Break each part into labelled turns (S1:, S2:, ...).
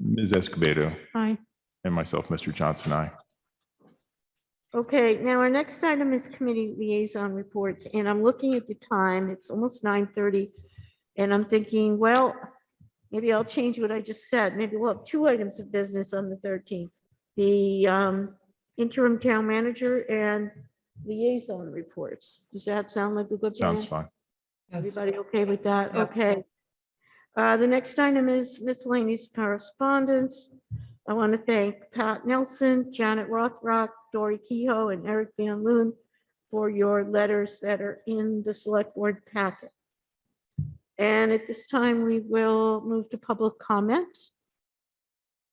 S1: Ms. Escobedo
S2: Aye.
S1: and myself, Mr. Johnson, I.
S2: Okay, now our next item is committee liaison reports, and I'm looking at the time, it's almost nine thirty. And I'm thinking, well, maybe I'll change what I just said. Maybe we'll have two items of business on the thirteenth. The um, interim town manager and liaison reports. Does that sound like a good plan?
S1: Sounds fine.
S2: Everybody okay with that?
S3: Yeah.
S2: Okay. Uh, The next item is miscellaneous correspondence. I want to thank Pat Nelson, Janet Rothrock, Dory Kehoe, and Eric Van Loon for your letters that are in the select board packet. And at this time, we will move to public comment.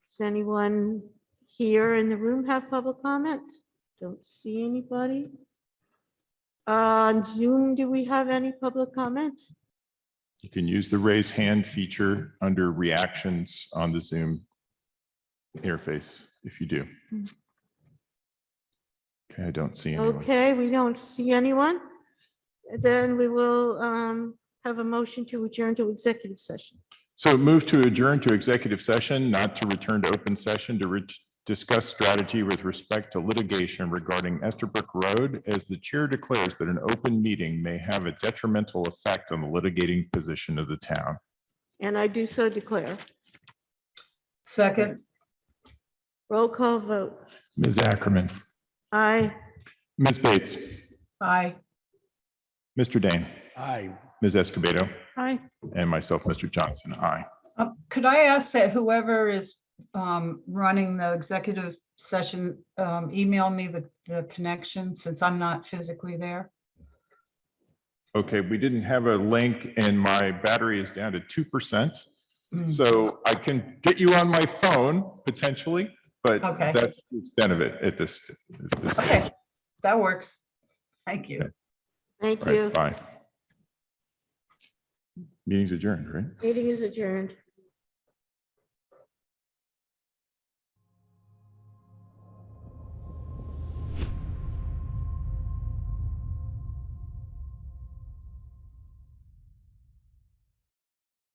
S2: Does anyone here in the room have public comment? Don't see anybody. Uh, On Zoom, do we have any public comment?
S1: You can use the raise hand feature under reactions on the Zoom interface if you do. Okay, I don't see anyone.
S2: Okay, we don't see anyone. Then we will um, have a motion to adjourn to executive session.
S1: So move to adjourn to executive session, not to return to open session to re- discuss strategy with respect to litigation regarding Estherbrook Road as the chair declares that an open meeting may have a detrimental effect on the litigating position of the town.
S2: And I do so declare.
S3: Second,
S2: Roll call vote.
S1: Ms. Ackerman,
S2: Aye.
S1: Ms. Bates,
S3: aye.
S1: Mr. Dane,
S4: Aye.
S1: Ms. Escobedo,
S2: Aye.
S1: and myself, Mr. Johnson, aye.
S3: Um, Could I ask that whoever is um, running the executive session, um, email me the, the connection since I'm not physically there?
S1: Okay, we didn't have a link and my battery is down to 2%.
S3: Mm,
S1: So I can get you on my phone potentially, but
S3: Okay.
S1: that's the extent of it at this. at this
S3: Okay, that works. Thank you.
S2: Thank
S1: All right,
S2: you.
S1: Bye. Meeting's adjourned, right?
S2: Meeting is adjourned.